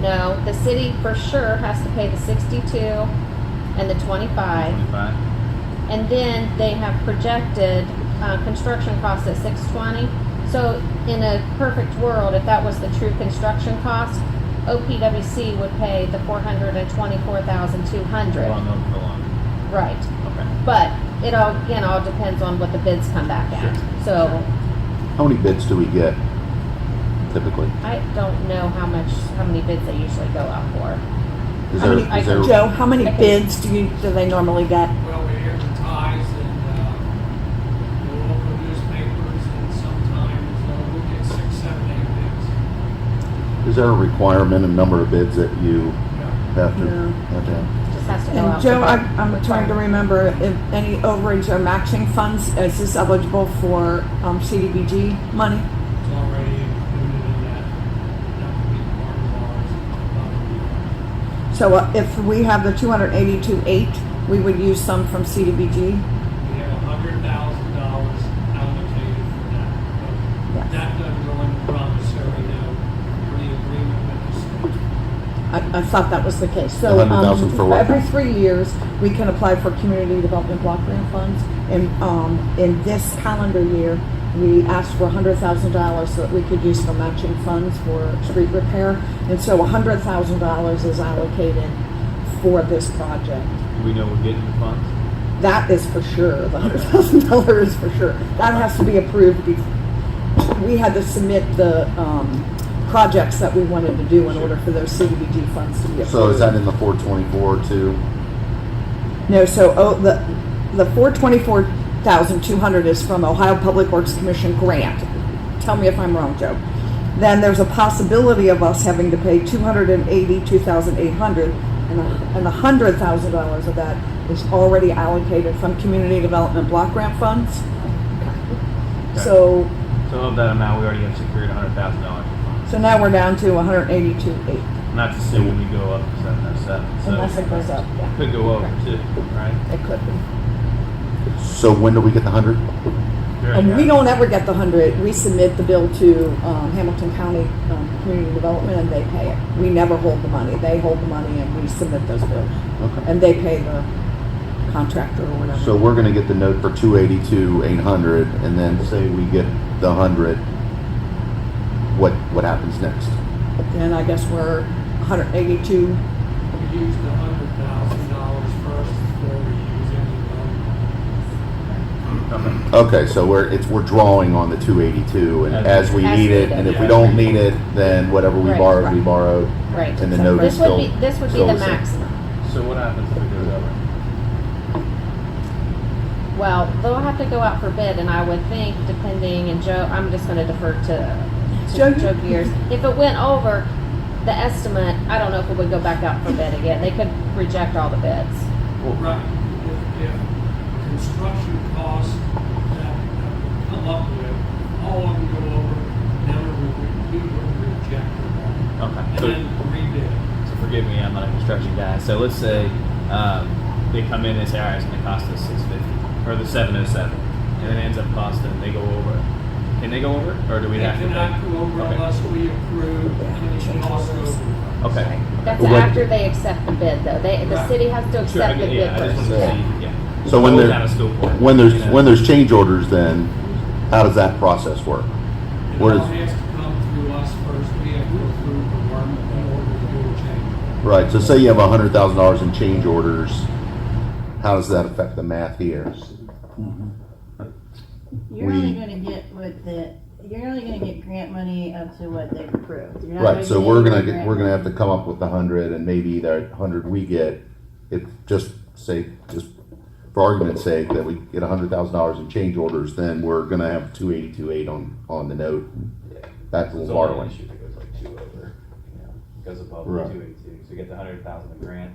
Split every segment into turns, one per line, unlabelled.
No, the city for sure has to pay the sixty-two and the twenty-five.
Twenty-five.
And then they have projected, uh, construction costs at six twenty. So in a perfect world, if that was the true construction cost, OPWC would pay the four hundred and twenty-four thousand two hundred.
Long over the long.
Right.
Okay.
But it all, again, all depends on what the bids come back at. So
How many bids do we get typically?
I don't know how much, how many bids they usually go out for.
Is
How
there,
many- I
is there,
Joe, how many
Okay.
bids do you, do they normally get?
Well, we advertise in uh, the local newspapers and sometimes uh, we'll get six, seven, eight bids.
is there a requirement, a number of bids that you
Yeah.
have to,
No.
have to have?
Just has to go out.
And
for
Joe, I,
bid.
I'm trying to remember if any overage or matching funds, is this eligible for, um, CDBG money?
It's already included in that. That would be part of ours. uh,
So uh, if we have the two hundred eighty-two eight, we would use some from CDBG?
We have a hundred thousand dollars allocated for that.
Yes.
But That doesn't go in the promissory note or the agreement with the state.
I, I thought that was the case. So, um,
$100,000 for what?
every three years, we can apply for community development block grant funds. And, um, in this calendar year, we asked for hundred thousand dollars so that we could use for matching funds for street repair. And so hundred thousand dollars is allocated for this project.
Do we know we're getting the funds?
That is for sure. The hundred thousand dollars is for sure. That has to be approved. be- We had to submit the um, projects that we wanted to do in order for those CDBG funds to be approved.
So is that in the four twenty-four too?
No, so, oh, the, the four twenty-four thousand two hundred is from Ohio Public Works Commission grant. Tell me if I'm wrong, Joe. Then there's a possibility of us having to pay two hundred and eighty-two thousand eight hundred, and, a- and a hundred thousand dollars of that is already allocated from Community Development Block Grant funds. So,
So of that amount, we already have secured a hundred thousand dollars in funds.
so now we're down to hundred eighty-two eight,
Not to say when we go up to seven oh seven,
unless
so
it goes up, yeah,
could go over too, right?
it could be.
So when do we get the hundred?
And we don't ever get the hundred, we submit the bill to, um, Hamilton County, um, Community Development and they pay it. We never hold the money, they hold the money and we submit those bills,
Okay.
and they pay the contractor or whatever.
So we're gonna get the note for two eighty-two, eight hundred, and then say we get the hundred. What, what happens next?
Then I guess we're hundred eighty-two,
We use the hundred thousand dollars first before we use any loan.
Okay.
Okay, so we're, it's, we're drawing on the two eighty-two and as we
As
need it,
needed.
and if we
Yeah.
don't need it, then whatever we
Right,
borrowed, we
right.
borrowed.
Right.
And the note is
This would be,
still.
this would be
still
the
same.
maximum.
So what happens if it goes over?
Well, they'll have to go out for bid and I would think depending, and Joe, I'm just gonna defer to,
Joe,
to
you-
Joe Gears. If it went over the estimate, I don't know if it would go back out for bid again. They could reject all the bids.
Right, if, if construction costs that we come up with, all of them go over, then we would, we would reject them all.
Okay.
And
So-
then rebid.
So forgive me, I'm not a construction guy. So let's say um, they come in and say, all right, it's going to cost us 650 or the 707 and it ends up costing, they go over. Can they go over it, or do we
They
have to
cannot
pay?
go over
Okay.
unless we approve, and they can also go over.
Okay.
That's
Well, what-
after they accept the bid though. They, the
Right.
city has to
Sure, I
accept the
get,
bid
yeah, I just
first.
want to see, yeah.
So when
Always
there-
out of school for it,
When there's,
you know?
when there's change orders then, how does that process work?
And
What
all
is-
has to come through us first, we have to approve the work in order to do a change.
Right, so say you have a hundred thousand dollars in change orders, how does that affect the math here?
You're only
We-
gonna get what the, you're only gonna get grant money up to what they've approved. You're not
Right, so
get
we're
any
gonna,
grant
get we're gonna
money.
have to come up with the hundred and maybe that hundred we get, if, just say, just for argument's sake, that we get a hundred thousand dollars in change orders, then we're gonna have two eighty-two eight on, on the note. That's a
It's
little
only an
borrowing.
issue that goes like two over, you know, goes above
Right.
two eighty-two, so you get the hundred thousand in grant,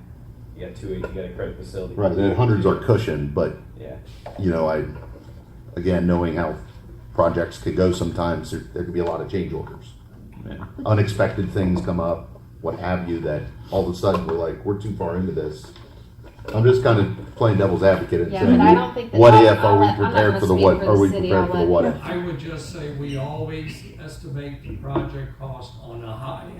you got two eighty, you got a credit facility.
Right, and hundreds are cushioned, but
Yeah,
you know, I, again, knowing how projects could go sometimes, there, there could be a lot of change orders.
Yeah.
Unexpected things come up, what have you, that all of a sudden we're like, we're too far into this. I'm just kind of playing devil's advocate and
Yeah, but I don't
saying,
think that.
what
I'll-
if,
I'll let- I'm
are we
not
prepared
gonna
for the
speak
what, are we
city.
prepared
I'll
for the
let-
what if?
I would just say we always estimate the project cost on a high end.